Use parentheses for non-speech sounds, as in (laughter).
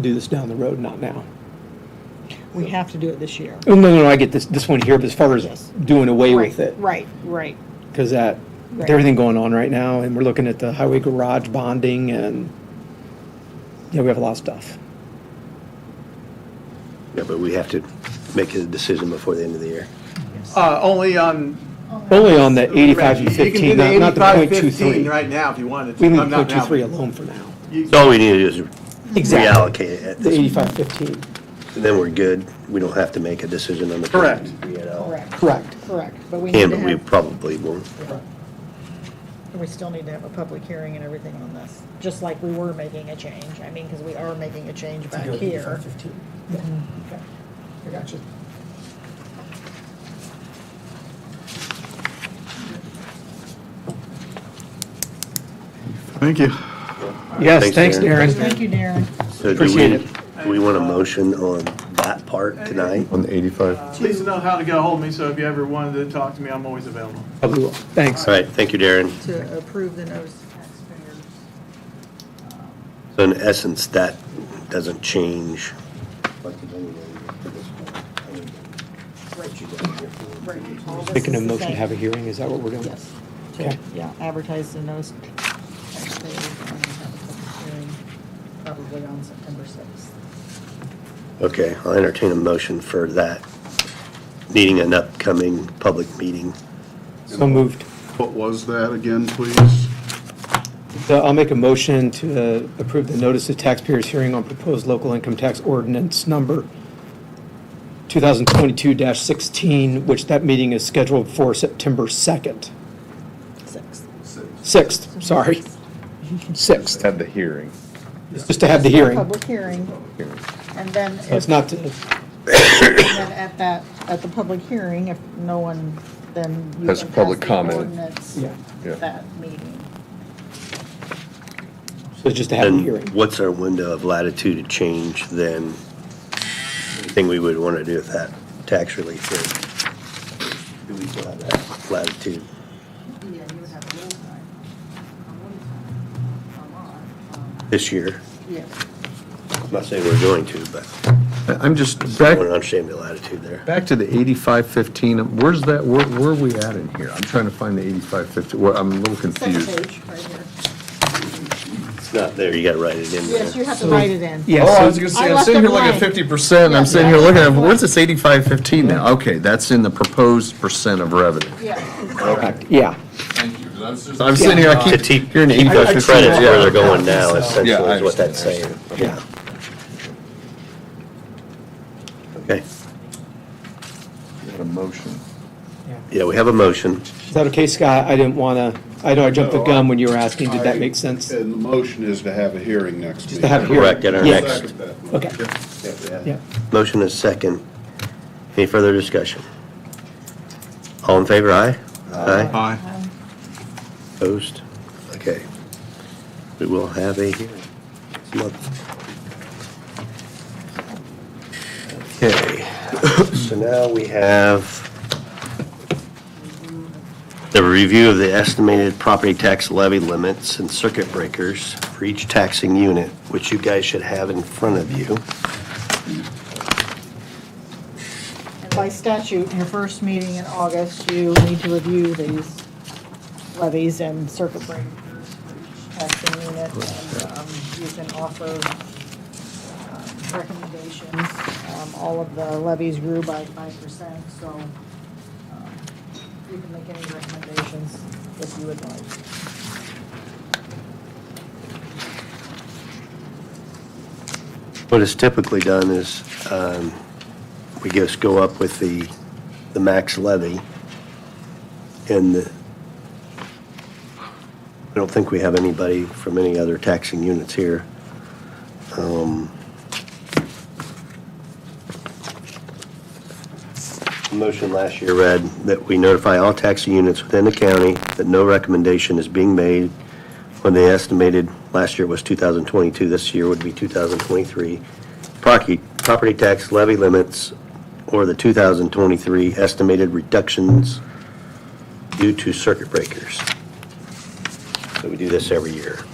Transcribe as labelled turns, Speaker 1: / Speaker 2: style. Speaker 1: do this down the road, not now.
Speaker 2: We have to do it this year.
Speaker 1: Oh, No, no, no, I get this, this one here, but as far as
Speaker 2: Yes.
Speaker 1: doing away
Speaker 2: Right,
Speaker 1: with it.
Speaker 2: Right, right.
Speaker 1: Because that, with
Speaker 2: Right.
Speaker 1: everything going on right now, and we're looking at the highway garage bonding and, yeah, we have a lot of stuff.
Speaker 3: Yeah, but we have to make a decision before the end of the year.
Speaker 4: Uh, only on.
Speaker 2: Oh,
Speaker 1: Only on the eighty-five and
Speaker 4: You can do
Speaker 1: fifteen,
Speaker 4: the
Speaker 1: not not the
Speaker 4: 85,
Speaker 1: point two
Speaker 4: 15
Speaker 1: three.
Speaker 4: Right now, if you wanted to.
Speaker 1: We leave
Speaker 4: I'm
Speaker 1: point
Speaker 4: not
Speaker 1: two
Speaker 4: now.
Speaker 1: three alone for now.
Speaker 3: So all we need to do is reallocate it, at
Speaker 1: The
Speaker 3: this-
Speaker 1: eighty-five fifteen,
Speaker 3: then we're good. We don't have to make a decision on the.
Speaker 4: Correct.
Speaker 3: You know.
Speaker 2: Correct,
Speaker 1: correct.
Speaker 2: correct. But we need
Speaker 3: And
Speaker 2: to
Speaker 3: but we
Speaker 2: have,
Speaker 3: probably won't.
Speaker 2: we still need to have a public hearing and everything on this, just like we were making a change. I mean, because we are making a change back here.
Speaker 1: I got you.
Speaker 5: Thank you.
Speaker 1: Yes,
Speaker 3: Thanks,
Speaker 1: thanks,
Speaker 3: Darren.
Speaker 1: Darren.
Speaker 2: Thank you, Darren.
Speaker 3: So do
Speaker 1: Appreciate
Speaker 3: we,
Speaker 1: it.
Speaker 3: do we want a motion on that part tonight?
Speaker 5: On the 85.
Speaker 4: Please know how to get a hold of me, so if you ever wanted to talk to me, I'm always available.
Speaker 1: Probably will. Thanks.
Speaker 3: All right, thank you, Darren.
Speaker 2: To approve the notice of taxpayers.
Speaker 3: So in essence, that doesn't change.
Speaker 1: Making a motion to have a hearing, is that what we're doing?
Speaker 2: Yes. To-
Speaker 1: Okay.
Speaker 2: Yeah, advertise the notice. of taxpayers and have a public hearing Probably on September 6th.
Speaker 3: Okay, I'll entertain a motion for that, needing an upcoming public meeting.
Speaker 1: So moved.
Speaker 5: What was that again, please?
Speaker 1: So I'll make a motion to uh, approve the notice of taxpayers hearing on proposed local income tax ordinance number 2022-16, which that meeting is scheduled for September 2nd,
Speaker 2: 6th.
Speaker 1: 6th, sorry, 6th,
Speaker 6: Had the hearing.
Speaker 1: just to have the hearing.
Speaker 2: Public hearing, and then
Speaker 1: So
Speaker 2: if,
Speaker 1: It's
Speaker 2: and
Speaker 1: not to,
Speaker 2: then at that, at the public hearing, if no one, then you
Speaker 6: Has
Speaker 2: can
Speaker 6: public
Speaker 2: pass the
Speaker 6: comment.
Speaker 2: ordinance
Speaker 1: Yeah.
Speaker 6: Yeah.
Speaker 2: That meeting.
Speaker 1: so it's just to have the
Speaker 3: And
Speaker 1: hearing.
Speaker 3: what's our window of latitude to change then? Anything we would want to do with that tax relief rate? Do we still have that latitude?
Speaker 7: Yeah, you would have a little time, a little time, a lot. um,
Speaker 3: This year,
Speaker 2: Yeah.
Speaker 3: I'm not saying we're going to, but
Speaker 8: I'm just,
Speaker 3: I
Speaker 8: back,
Speaker 3: want to understand the latitude there.
Speaker 8: back to the eighty-five fifteen, where's that, where, where are we at in here? I'm trying to find the eighty-five fifteen, well, I'm a little
Speaker 2: Second
Speaker 8: confused.
Speaker 2: page, right here.
Speaker 3: It's not there, you got to write it in there.
Speaker 2: Yes, you have to write it in.
Speaker 1: Yeah,
Speaker 8: Oh, I
Speaker 1: so-
Speaker 8: was gonna
Speaker 2: I
Speaker 8: say, I'm
Speaker 2: left
Speaker 8: sitting
Speaker 2: it
Speaker 8: here looking at
Speaker 2: blank.
Speaker 8: fifty percent, I'm
Speaker 2: Yeah,
Speaker 8: sitting
Speaker 2: yeah.
Speaker 8: here looking at, where's this eighty-five fifteen now? Okay, that's in the proposed percent of revenue.
Speaker 2: Yeah.
Speaker 1: Correct. Yeah,
Speaker 8: I'm sitting here, I
Speaker 3: To
Speaker 8: keep
Speaker 3: keep
Speaker 8: hearing
Speaker 3: keep
Speaker 8: eighty-five
Speaker 3: the
Speaker 8: fifteen,
Speaker 3: credits where they're
Speaker 8: yeah.
Speaker 3: going now, essentially,
Speaker 8: Yeah, I
Speaker 3: is what that's
Speaker 8: understand, I
Speaker 3: saying.
Speaker 1: yeah.
Speaker 3: Okay,
Speaker 6: Got a motion.
Speaker 3: yeah, we have a motion.
Speaker 1: Is that okay, Scott? I didn't want to, I know I jumped the gun when you were asking, did that make sense?
Speaker 5: And the motion is to have a hearing next
Speaker 1: Just to have a hearing?
Speaker 3: Correct, at our
Speaker 1: Yes.
Speaker 3: next-
Speaker 1: Okay, yeah.
Speaker 3: Motion is second. Any further discussion? All in favor, aye? Aye.
Speaker 5: Aye.
Speaker 3: Opposed? Okay. We will have a hearing. this month. Okay, (coughs) so now we have the review of the estimated property tax levy limits and circuit breakers for each taxing unit, which you guys should have in front of you.
Speaker 2: By statute, in your first meeting in August, you need to review these levies and circuit breakers for each taxing unit. and um, You can offer um, recommendations. Um, All of the levies grew by five percent, so um, you can make any recommendations if you would like.
Speaker 3: What is typically done is um, we just go up with the, the max levy and the, I don't think we have anybody from any other taxing units here. Um, the Motion last year read that we notify all taxing units within the county that no recommendation is being made when they estimated, last year was 2022, this year would be 2023, property, property tax levy limits or the 2023 estimated reductions due to circuit breakers. So we do this every year.